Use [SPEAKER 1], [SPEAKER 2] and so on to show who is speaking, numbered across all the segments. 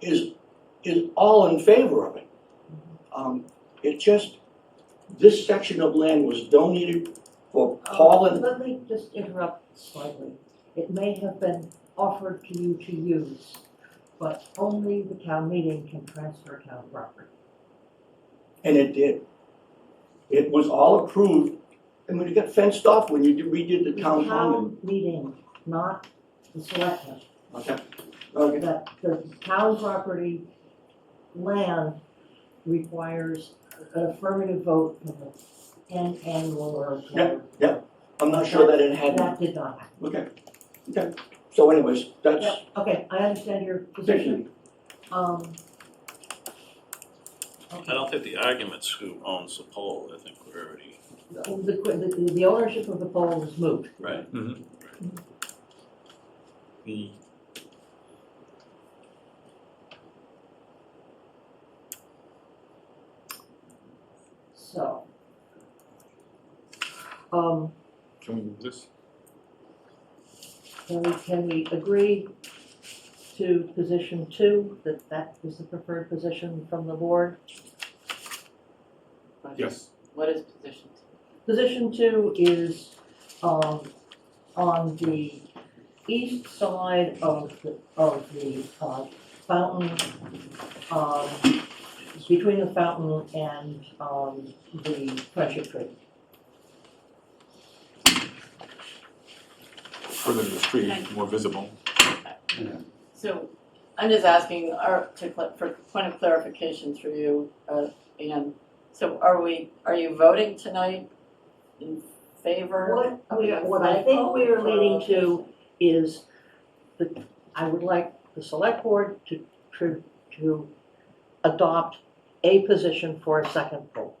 [SPEAKER 1] is, is all in favor of it. Um, it just, this section of land was donated for Paul and,
[SPEAKER 2] Uh, Let me just interrupt slightly. It may have been offered to you to use, but only the town meeting can transfer town property.
[SPEAKER 1] and it did. It was all approved, I mean, it got fenced off when you did- redid the town common.
[SPEAKER 2] Town meeting, not the selectmen.
[SPEAKER 1] Okay, okay,
[SPEAKER 2] That the town property land requires an affirmative vote from the ten annual or.
[SPEAKER 1] Yeah, I'm not sure that it had,
[SPEAKER 2] That did not happen.
[SPEAKER 1] okay, okay. So anyways, that's,
[SPEAKER 2] Yeah, Okay, I understand your position.
[SPEAKER 1] Position.
[SPEAKER 2] Um.
[SPEAKER 3] I don't think the argument's who owns the pole, I think we're already,
[SPEAKER 2] The, the, the ownership of the pole was moved.
[SPEAKER 3] right? The,
[SPEAKER 2] So. Um,
[SPEAKER 4] Can we move this?
[SPEAKER 2] can we, can we agree to position two, that that is the preferred position from the board?
[SPEAKER 5] What is-
[SPEAKER 4] Yes.
[SPEAKER 5] What is position two?
[SPEAKER 2] Position two is, um, on the east side of the, of the, uh, fountain, um, between the fountain and, um, the friendship tree.
[SPEAKER 4] Further to the street, more visible.
[SPEAKER 5] So I'm just asking, are, to, cl- for point of clarification through you, uh, Ann. So are we, are you voting tonight in favor?
[SPEAKER 2] What
[SPEAKER 5] of
[SPEAKER 2] we
[SPEAKER 5] the
[SPEAKER 2] are- what I think we are leading to is the, I would like the select board to, to, to adopt a position for a second poll.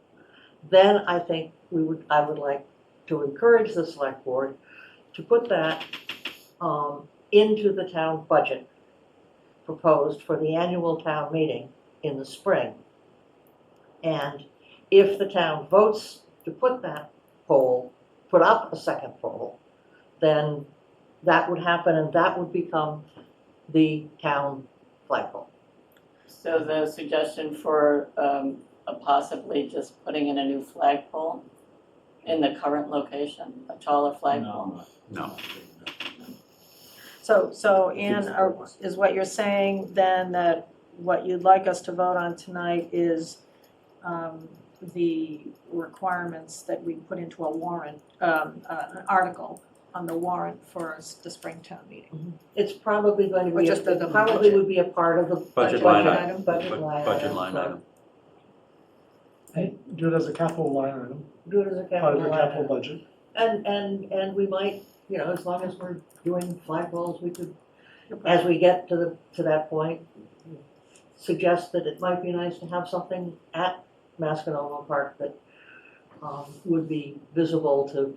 [SPEAKER 2] Then I think we would, I would like to encourage the select board to put that, um, into the town budget proposed for the annual town meeting in the spring. And if the town votes to put that poll put up a second poll, then that would happen and that would become the town flagpole.
[SPEAKER 5] So the suggestion for, um, uh, possibly just putting in a new flagpole in the current location, a taller flagpole?
[SPEAKER 4] No.
[SPEAKER 6] So, so Ann, are- is what you're saying then that what you'd like us to vote on tonight is um, the requirements that we put into a warrant, um, uh, an article on the warrant for s- the spring town meeting?
[SPEAKER 2] It's probably going to
[SPEAKER 6] Or
[SPEAKER 2] be,
[SPEAKER 6] just the- the
[SPEAKER 2] it probably
[SPEAKER 6] budget.
[SPEAKER 2] would be a part of the budget
[SPEAKER 7] Budget
[SPEAKER 6] line
[SPEAKER 2] line
[SPEAKER 6] item.
[SPEAKER 2] item, budget line item.
[SPEAKER 7] Budget line item.
[SPEAKER 8] Do it as a capital line item,
[SPEAKER 2] Do it as a
[SPEAKER 8] part
[SPEAKER 2] capital
[SPEAKER 8] of your
[SPEAKER 2] line
[SPEAKER 8] capital
[SPEAKER 2] item.
[SPEAKER 8] budget.
[SPEAKER 2] And, and, and we might, you know, as long as we're doing flagpoles, we could, as we get to the, to that point, suggest that it might be nice to have something at Mascanoma Park that, um, would be visible to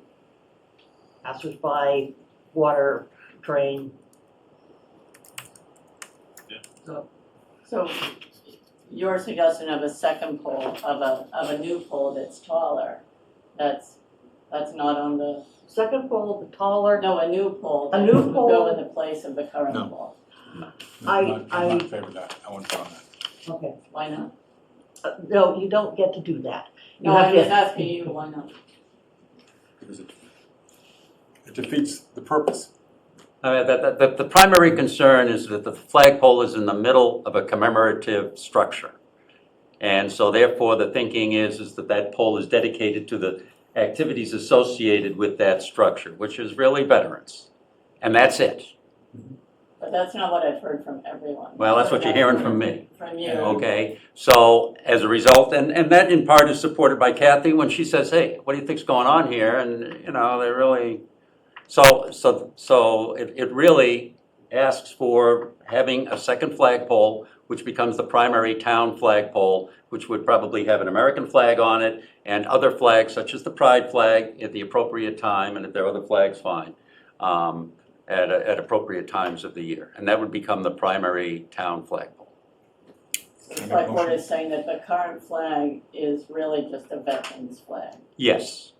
[SPEAKER 2] passersby, water, train.
[SPEAKER 3] Yeah.
[SPEAKER 2] So,
[SPEAKER 5] So your suggestion of a second pole, of a, of a new pole that's taller, that's, that's not on the,
[SPEAKER 2] second pole, the taller,
[SPEAKER 5] no, a new pole.
[SPEAKER 2] A
[SPEAKER 5] that
[SPEAKER 2] new
[SPEAKER 5] would
[SPEAKER 2] pole.
[SPEAKER 5] Go in the place of the current
[SPEAKER 4] No.
[SPEAKER 5] pole.
[SPEAKER 2] I-
[SPEAKER 4] I'm not, I'm
[SPEAKER 2] I-
[SPEAKER 4] not in favor of that, I want to vote on that.
[SPEAKER 2] okay,
[SPEAKER 5] Why not?
[SPEAKER 2] Uh, no, you don't get to do that. You
[SPEAKER 5] No,
[SPEAKER 2] have
[SPEAKER 5] I'm
[SPEAKER 2] to-
[SPEAKER 5] just asking you, why not?
[SPEAKER 4] Because it, it defeats the purpose.
[SPEAKER 7] Uh, The, the- the, the primary concern is that the flagpole is in the middle of a commemorative structure. And so therefore, the thinking is, is that that pole is dedicated to the activities associated with that structure, which is really veterans. And that's it.
[SPEAKER 5] But that's not what I've heard from everyone.
[SPEAKER 7] Well, that's what you're hearing from me.
[SPEAKER 5] From you.
[SPEAKER 7] Okay, so as a result, and, and that in part is supported by Kathy when she says, hey, what do you think's going on here? And, you know, they really, so, so, so it, it really asks for having a second flagpole, which becomes the primary town flagpole, which would probably have an American flag on it and other flags such as the pride flag at the appropriate time, and if there are other flags, fine, um, at, at appropriate times of the year. And that would become the primary town flagpole.
[SPEAKER 4] Can I
[SPEAKER 5] The
[SPEAKER 4] make a
[SPEAKER 5] Select board
[SPEAKER 4] motion?
[SPEAKER 5] is saying that the current flag is really just a veteran's flag.
[SPEAKER 7] Yes.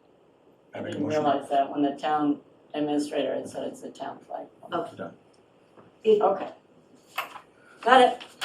[SPEAKER 4] I make a
[SPEAKER 5] didn't
[SPEAKER 4] motion.
[SPEAKER 5] realize that when the town administrator
[SPEAKER 2] Oh.
[SPEAKER 5] had said it's a town flag.
[SPEAKER 4] Done.
[SPEAKER 5] Okay. Got it.